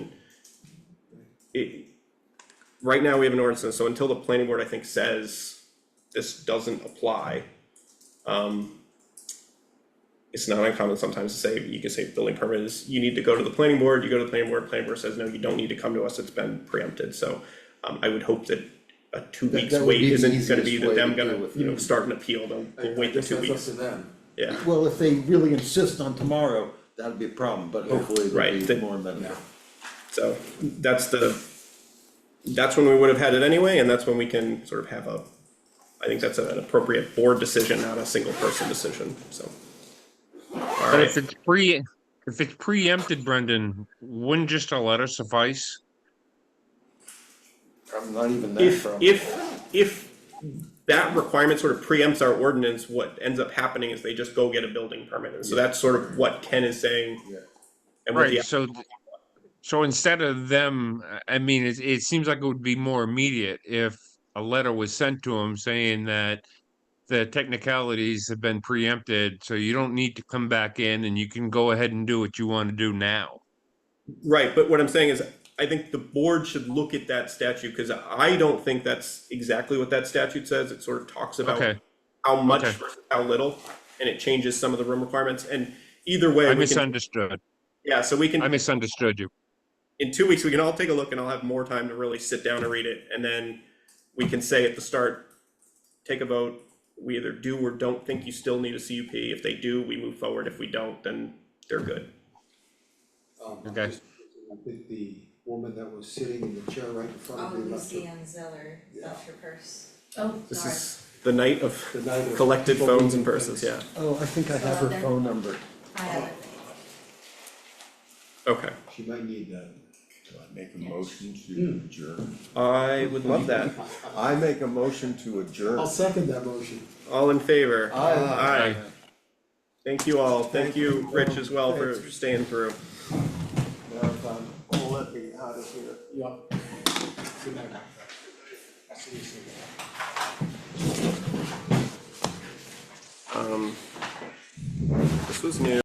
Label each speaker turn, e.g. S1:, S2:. S1: it, right now we have an ordinance, so until the planning board, I think, says this doesn't apply, um, it's not uncommon sometimes to say, you can say building permit is, you need to go to the planning board, you go to the planning board, planning board says, no, you don't need to come to us, it's been preempted, so um, I would hope that a two
S2: That-
S1: weeks
S2: that would
S1: wait
S2: be the
S1: isn't gonna be
S2: easiest
S1: that
S2: way
S1: them
S2: to deal
S1: gonna,
S2: with
S1: you know,
S2: it.
S1: start an appeal, they'll, they'll wait the two
S3: I guess that's
S1: weeks,
S3: up to them.
S1: yeah.
S2: Well, if they really insist on tomorrow, that'd be a problem, but hopefully
S1: Right,
S2: it'll
S1: that-
S2: be more amenable.
S1: So that's the, that's when we would have had it anyway, and that's when we can sort of have a, I think that's an appropriate board decision, not a single person decision, so.
S4: But
S1: Alright,
S4: if it's pre, if it's preempted, Brendan, wouldn't just a letter suffice?
S2: I'm not even that
S1: if,
S2: from,
S1: if, if that requirement sort of preempts our ordinance, what ends up happening is they just go get a building permit, and so that's sort of what Ken is saying.
S2: Yeah.
S1: And what the
S4: Right, so, so instead of them, I- I mean, it, it seems like it would be more immediate if a letter was sent to them saying that the technicalities have been preempted, so you don't need to come back in and you can go ahead and do what you want to do now.
S1: Right, but what I'm saying is, I think the board should look at that statute, cause I don't think that's exactly what that statute says, it sort of talks about
S4: Okay.
S1: how much
S4: Okay.
S1: versus how little, and it changes some of the room requirements, and either way,
S4: I
S1: we can,
S4: misunderstood.
S1: yeah, so we
S4: I
S1: can,
S4: misunderstood you.
S1: in two weeks, we can all take a look, and I'll have more time to really sit down and read it, and then we can say at the start, take a vote, we either do or don't think you still need a CUP, if they do, we move forward, if we don't, then they're good.
S5: Um,
S4: Okay.
S5: just- I think the woman that was sitting in the chair right in front
S6: Oh,
S5: of me left her,
S6: Lucianne Zeller left her purse.
S7: Oh,
S1: This
S7: sorry.
S1: is the night of
S5: The night of
S1: collected
S5: people
S1: phones and
S5: leaving
S1: purses, yeah.
S5: things.
S2: oh, I think I have her
S7: Well,
S2: phone number.
S6: I haven't.
S1: Okay,
S5: she might need that.
S8: Make a motion
S1: Hmm.
S8: to adjourn.
S1: I would love that.
S8: I make a motion to adjourn.
S5: I'll second that motion.
S1: All in favor?
S2: Aye.
S1: Aye. Thank you all. Thank you, Rich, as well, for staying through.
S5: Marathon, oh, let me out of here. Yep. Good night. I'll see you soon.
S1: Um, this was new.